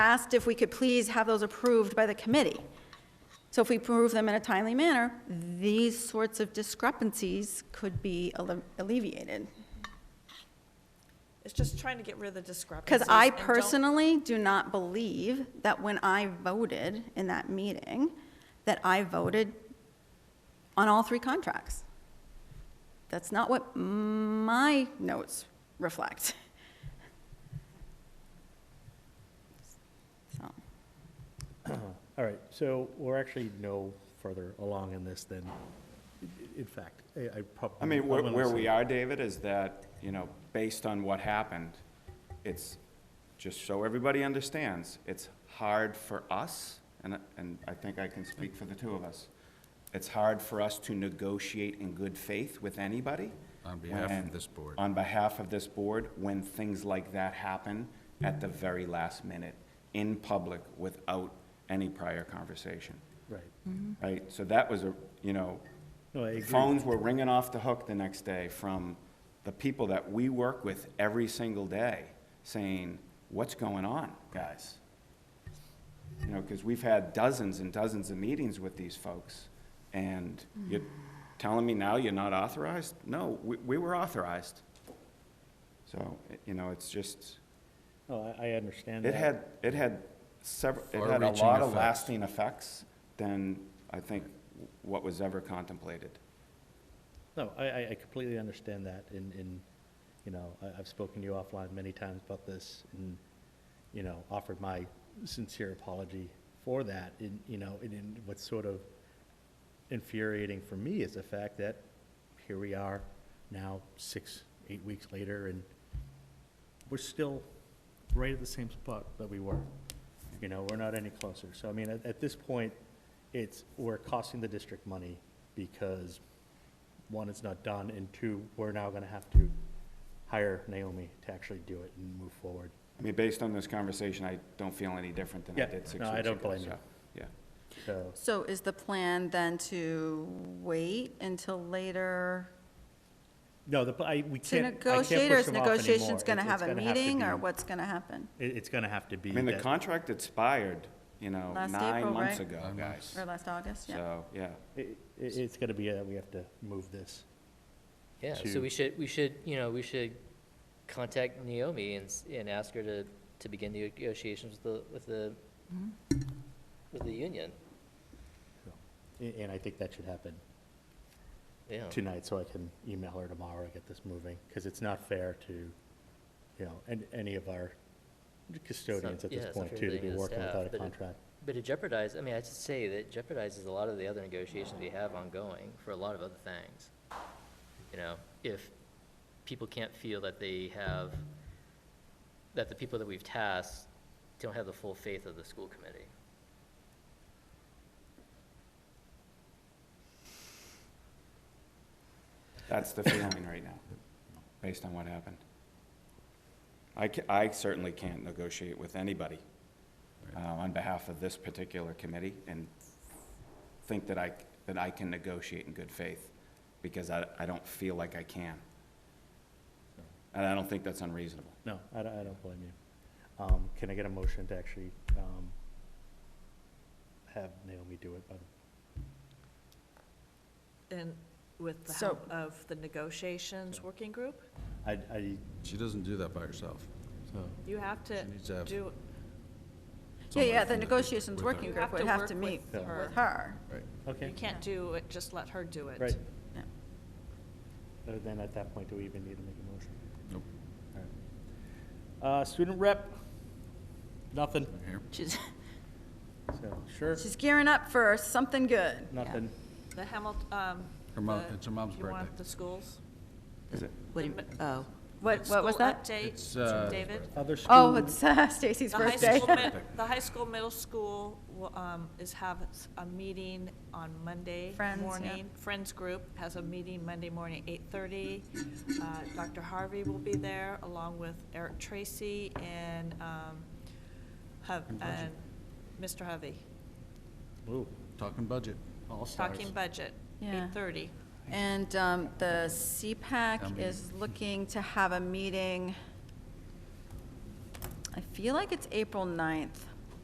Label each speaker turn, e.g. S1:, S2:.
S1: asked if we could please have those approved by the committee. So if we approve them in a timely manner, these sorts of discrepancies could be alle- alleviated.
S2: It's just trying to get rid of the discrepancies.
S1: Because I
S2: and don't-
S1: personally do not believe that when I voted in that meeting, that I voted on all three contracts. That's not what my notes reflect. So,
S3: All right, so we're actually no further along in this than, in fact, I I probably.
S4: I mean, where,
S3: I'm gonna
S4: where
S3: say-
S4: we are, David, is that, you know, based on what happened, it's, just so everybody understands, it's hard for us, and, and I think I can speak for the two of us, it's hard for us to negotiate in good faith with anybody.
S5: On behalf of
S4: when-
S5: this board.
S4: On behalf of this board, when things like that happen at the very last minute, in public, without any prior conversation,
S3: Right,
S4: right? So that was a, you know,
S3: no, I agree,
S4: phones were ringing off the hook the next day from the people that we work with every single day saying, what's going on, guys? You know, because we've had dozens and dozens of meetings with these folks, and you're telling me now you're not authorized? No, we, we were authorized. So, you know, it's just,
S3: no, Oh, I I understand that.
S4: it had, it had several, it had a
S5: Far-reaching
S4: lot of
S5: effects.
S4: lasting effects than, I think, what was ever contemplated.
S3: No, I- I, I completely understand that, and, and, you know, I, I've spoken to you offline many times about this, and, you know, offered my sincere apology for that, and, you know, and, and what's sort of infuriating for me is the fact that here we are now, six, eight weeks later, and we're still right at the same spot that we were. You know, we're not any closer. So, I mean, at, at this point, it's, we're costing the district money because, one, it's not done, and two, we're now gonna have to hire Naomi to actually do it and move forward.
S4: I mean, based on this conversation, I don't feel any different than I
S3: Yeah,
S4: did six weeks
S3: no,
S4: ago.
S3: I don't blame you.
S4: so, Yeah.
S3: So,
S1: so is the plan then to wait until later
S3: no, the, I, we
S1: to
S3: can't, I can't push them off
S1: negotiate, or is negotiations
S3: anymore.
S1: going to
S3: It-
S1: have
S3: it's
S1: a
S3: gonna have to
S1: meeting, or
S3: be-
S1: what's going to happen?
S3: It, it's gonna have to be
S4: I mean, the
S3: that-
S4: contract expired, you know,
S1: Last
S4: nine
S1: April,
S4: months
S1: right?
S4: ago,
S5: Nine
S4: guys.
S1: Or last August, yeah.
S4: So, yeah.
S3: it- it- it's gonna be, a- we have to move this.
S6: Yeah,
S3: to-
S6: so we should, we should, you know, we should contact Naomi and, s- and ask her to, to begin the negotiations with the, with the, with the union,
S3: So, a- And I think that should happen
S6: yeah.
S3: tonight, so I can email her tomorrow, get this moving, because it's not fair to, you know, an any of our custodians
S6: not-
S3: at
S6: yeah,
S3: this
S6: it's not
S3: point,
S6: fair
S3: too,
S6: to
S3: to be
S6: the
S3: working
S6: staff,
S3: without
S6: but
S3: a
S6: it-
S3: contract.
S6: But it jeopardizes, I mean, I should say that it jeopardizes a lot of the other negotiations we have ongoing for a lot of other things. You know, if people can't feel that they have, that the people that we've tasked don't have the full faith of the school committee.
S4: That's the feeling right now, based on what happened. I, ca- I certainly can't negotiate with anybody uh, on behalf of this particular committee and think that I, that I can negotiate in good faith, because I, I don't feel like I can. And I don't think that's unreasonable.
S3: No, I don't, I don't blame you. Um, can I get a motion to actually, um, have Naomi do it by the,
S2: And with the
S1: So-
S2: help of the negotiations working group,
S3: I, I,
S5: She doesn't do that by herself.
S3: so,
S2: you have to
S5: She needs to have-
S2: do,
S1: Yeah, yeah,
S5: Someone
S1: the
S5: from
S1: negotiations
S5: with
S1: working
S2: You
S5: her.
S2: have
S1: group would
S2: to
S1: have
S2: work
S1: to
S2: with
S1: meet
S3: Yeah.
S1: with her.
S5: Right.
S2: you
S3: okay.
S2: can't do it, just let her do it.
S3: Right.
S1: Yeah.
S3: Uh, Then at that point, do we even need to make a motion?
S5: Nope,
S3: All right. Uh, student rep, nothing,
S5: right here.
S1: She's,
S3: so, sure,
S1: she's gearing up for something good. Yeah.
S3: nothing.
S2: The Hamilton, um.
S5: Her mom-
S2: the-
S5: it's her mom's
S2: You want
S5: birthday.
S2: the schools?
S4: Is it?
S7: What do you, oh,
S1: What, what was that?
S2: School
S5: It's, uh,
S2: update, David?
S3: Other school.
S1: Oh, it's uh, Stacy's
S2: The high
S1: birthday.
S2: school, mid- the high school, middle school will, um, is have a meeting on Monday
S1: Friends, yeah.
S2: morning. Friends group has a meeting Monday morning, eight-thirty. Uh, Dr. Harvey will be there along with Eric Tracy and, um, Hov-
S5: And budget.
S2: and Mr. Hovey.
S3: Ooh,
S5: Talking budget.
S3: all stars.
S2: Talking budget,
S1: Yeah.
S2: eight-thirty.
S1: And um, the
S5: Town
S1: CPAC
S5: meeting.
S1: is looking to have a meeting, I feel like it's April 9th.